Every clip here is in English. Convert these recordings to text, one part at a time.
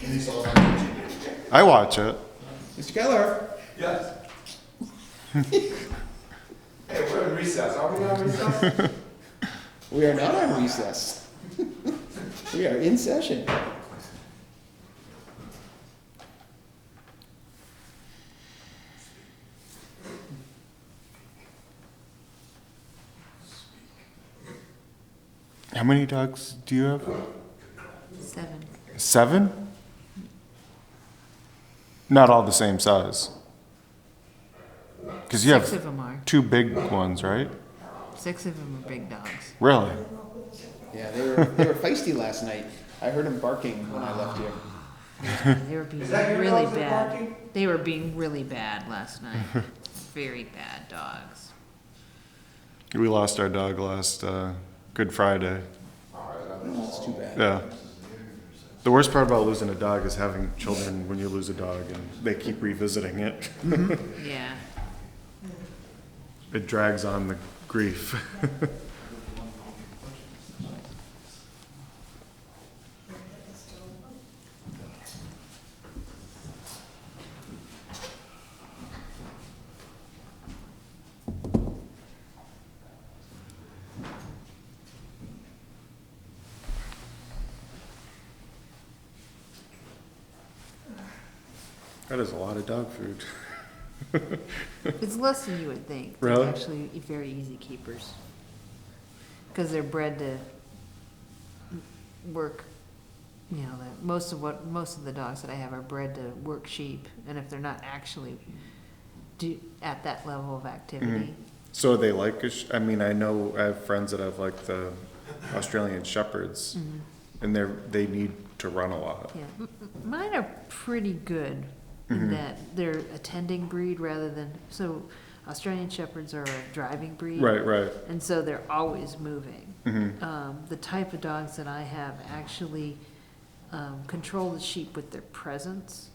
Denise all the time. I watch it. Mr. Keller, Yes. Hey, we're in recess, are we on recess? we are not on recess. We are in session. How many dogs do you have? Seven. Seven? Not all the same size. Because you Six have of them are. two big ones, right? Six of them are big dogs. Really? Yeah, they were, they were feisty last night. I heard them barking when I left here. They were being Is that your really dogs that are bad. barking? They were being really bad last night. Very bad dogs. We lost our dog last uh, Good Friday. It's too bad. Yeah. The worst part about losing a dog is having children when you lose a dog and they keep revisiting it. Yeah. It drags on the grief. That is a lot of dog food. It's less than you would think. They're Really? Actually, e- very easy keepers. Because they're bred to work, you know, that, most of what, most of the dogs that I have are bred to work sheep. And if they're not actually do, at that level of activity, So they like, a sh- I mean, I know I have friends that have like the Australian Shepherds, and they're, they need to run a lot. Yeah, m- m- mine are pretty good in that they're a tending breed rather than, so Australian Shepherds are a driving breed. Right, right. And so they're always moving. Mhm. Um, the type of dogs that I have actually, um, control the sheep with their presence.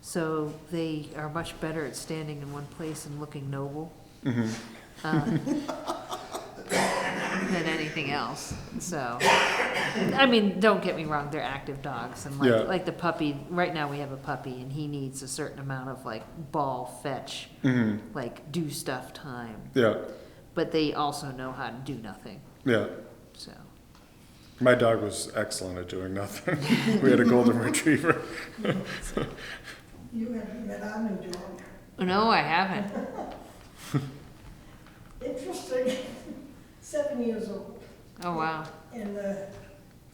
So they are much better at standing in one place and looking noble. Mm-hmm. um, Than anything else, so. I mean, don't get me wrong, they're active dogs and Yeah. like, like the puppy, right now we have a puppy and he needs a certain amount of like ball fetch, hmm like do stuff time, Yeah, but they also know how to do nothing, yeah. so. My dog was excellent at doing nothing. we had a golden retriever. You haven't met our new dog. No, I haven't. Interesting, seven years old, Oh, wow. and uh, the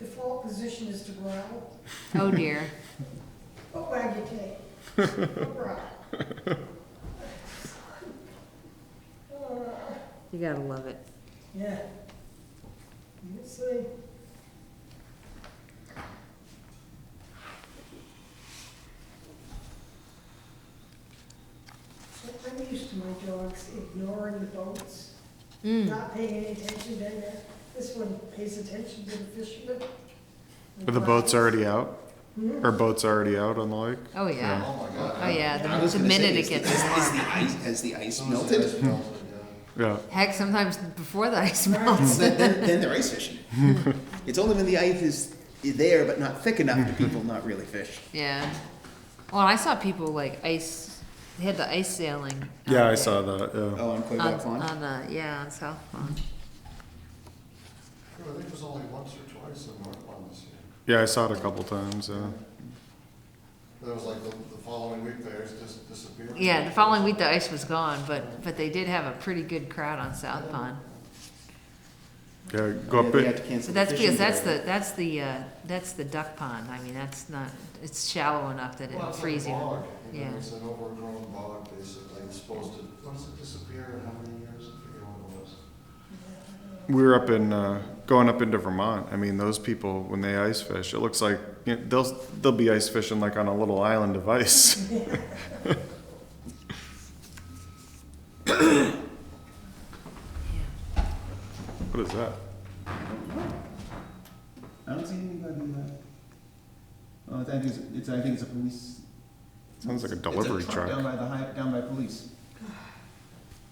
default position is to growl. Oh, dear. Oh, wag your tail. Oh, growl. Uh, You gotta love it. Yeah. Let's see. I'm used to my dogs ignoring the boats. Mm. not paying any attention to that. This one pays attention to the fishermen. But the boat's already out? Or boat's already out on the lake? Oh, yeah. Oh my god. Oh, yeah. I The, was the gonna say, minute it is the- gets is- Is warm. the ice, has the ice Someone said melted? it's melted, yeah. Yeah. Heck, sometimes before the ice melts. Then, then, then they're ice fishing. It's only when the ice is there but not thick enough to people not really fish. Yeah. Well, I saw people like ice, they had the ice sailing. out Yeah, I there. saw that. Yeah. Oh, on On, Quebec Pond? on, uh, yeah, on South Pond. I think it was only once or twice in North Lawn this year. Yeah, I saw it a couple times. Yeah. There was like the, the following week, theirs just disappeared. Yeah, the following week the ice was gone, but, but they did have a pretty good crowd on South Pond. Yeah, go Yeah, up they had to it. cancel So the that's fishing because that's there. the, that's the, uh, that's the duck pond. I mean, that's not, it's shallow enough that Well, it'll it's like a freeze you. bog, you know, Yeah. It's an overgrown bog, basically, it's supposed to, once it disappeared, how many years, I forget what it was. We were up in, uh, going up into Vermont. I mean, those people, when they ice fish, it looks like you know, they'll, they'll be ice fishing like on a little island of ice. What is that? I don't see anybody. Uh, oh, that is. It's. I think it's a police. Sounds like a it's delivery truck down truck. by the high, down by police.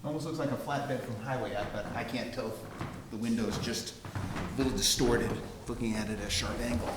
Almost looks like a flatbed from highway out, but I can't tell if the window's just a little distorted, looking at it at a sharp angle.